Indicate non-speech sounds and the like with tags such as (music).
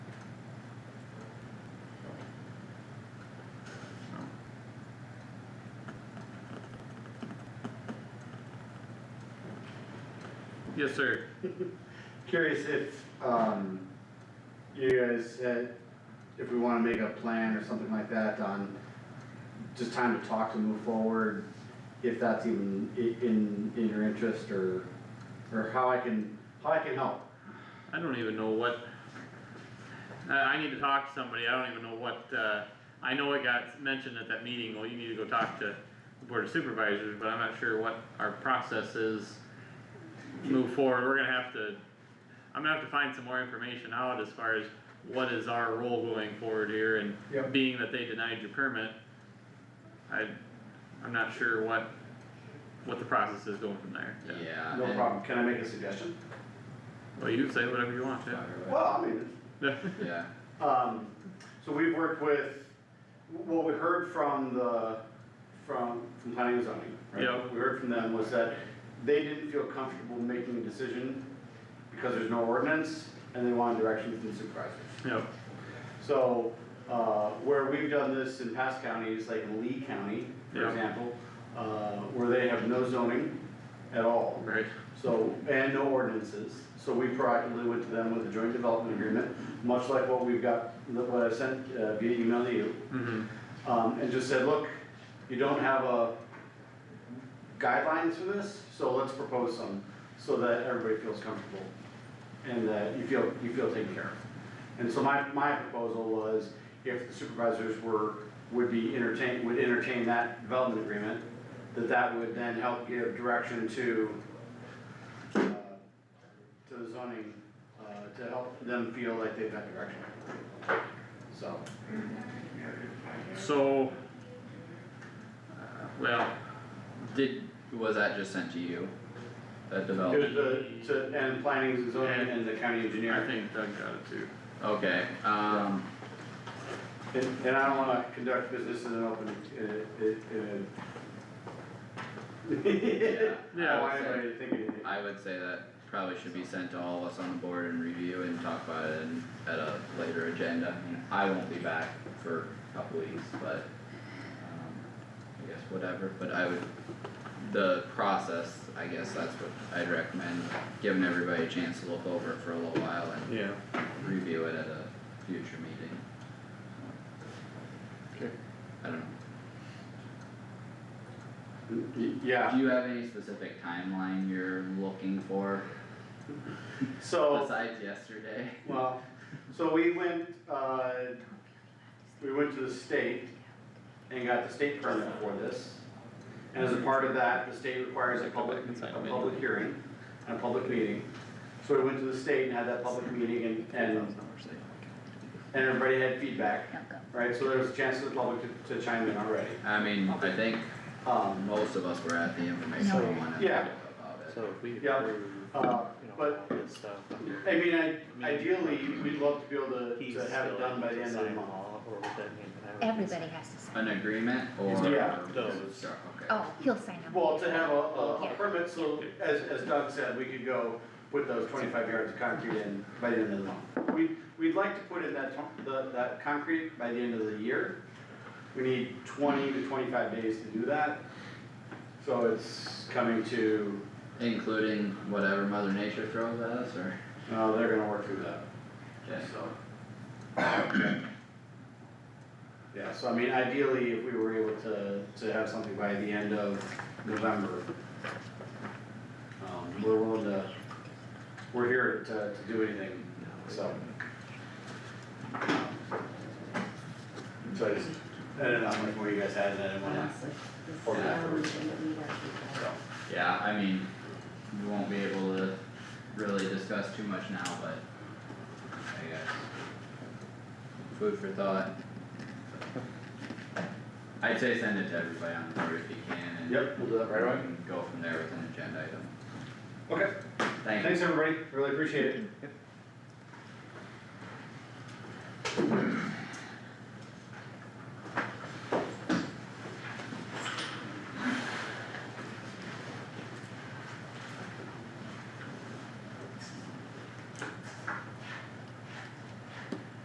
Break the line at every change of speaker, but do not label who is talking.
Yes, sir.
Curious if, um, you guys had, if we wanna make a plan or something like that on just time to talk to move forward, if that's even i- in, in your interest or, or how I can, how I can help.
I don't even know what, I, I need to talk to somebody, I don't even know what, uh, I know it got mentioned at that meeting, well, you need to go talk to the board of supervisors, but I'm not sure what our process is. Move forward, we're gonna have to, I'm gonna have to find some more information out as far as what is our role going forward here and
Yep.
being that they denied your permit. I, I'm not sure what, what the process is going from there, yeah.
Yeah.
No
and-
problem, can I make a suggestion?
Well, you can say whatever you want, yeah.
Well, I mean,
(laughs)
Yeah,
Um, so we've worked with, what we heard from the, from, from planning and zoning, right?
Yeah.
What We heard from them was that they didn't feel comfortable making a decision because there's no ordinance and they wanted direction from the supervisor.
Yep,
So, uh, where we've done this in past counties, like Lee County, for
Yeah.
example, uh, where they have no zoning at all.
right,
So, and no ordinances, so we proactively went to them with a joint development agreement, much like what we've got, what I sent uh, via email to you.
mhm,
Um, and just said, look, you don't have a guidelines for this, so let's propose some, so that everybody feels comfortable. And that you feel, you feel taken care of. And so my, my proposal was, if the supervisors were, would be entertain, would entertain that development agreement, that that would then help give direction to, uh, to the zoning, uh, to help them feel like they've got direction. So,
so. uh, Well,
did, was that just sent to you? That
It was
development?
the, to, and planning and zoning and the county
I
engineer.
think Doug got it too.
Okay, um,
And, and I don't wanna conduct business in an open, uh, uh,
yeah.
(laughs)
uh. I
Yeah,
(laughs) don't want
I would
anybody
say,
to think anything.
I would say that probably should be sent to all of us on the board and review and talk about it in- at a later agenda. I won't be back for a couple weeks, but, um, I guess whatever, but I would, the process, I guess that's what I'd recommend, giving everybody a chance to look over it for a little while and
Yeah.
review it at a future meeting.
Okay.
I don't know,
Y- Yeah,
do you have any specific timeline you're looking for
so,
besides yesterday?
well, so we went, uh, we went to the state and got the state permit for this. And as a part of that, the state requires a public, a public hearing and a public meeting. So we went to the state and had that public meeting and, and and everybody had feedback, right, so there was a chance for the public to, to chime in already.
I mean, I think
Um,
most of us were at the informational one. and
Yeah.
about it.
So if we
Yeah,
approve,
uh,
you know,
but-
all this stuff.
I mean, I, ideally, we'd love to be able
he's
to, to have
still
it done by
able
the
to
end of the
sign
month.
all, Or would that mean that I would just-
Everybody has to sign.
An agreement or?
Yeah.
Those.
Okay,
Oh, he'll sign them.
Well, to have a, a, a
Yeah.
permit, so as, as Doug said, we could go put those twenty-five yards of concrete in by the end of the month. We, we'd like to put in that, tw- the, that concrete by the end of the year. We need twenty to twenty-five days to do that. So it's coming to,
including whatever mother nature throws at us or?
uh, they're gonna work through that.
Okay.
So. (coughs) Yeah, so I mean, ideally, if we were able to, to have something by the end of November, um, we're willing to, we're here to, to do anything, so. So I just, I don't know how much more you guys had, and I didn't wanna, so.
Yeah, I mean, we won't be able to really discuss too much now, but I guess food for thought. I'd say send it to everybody on the board if you can and.
Yep, we'll do that right away.
and Go from there with an agenda item.
Okay,
Thank you.
thanks, everybody, really appreciate it.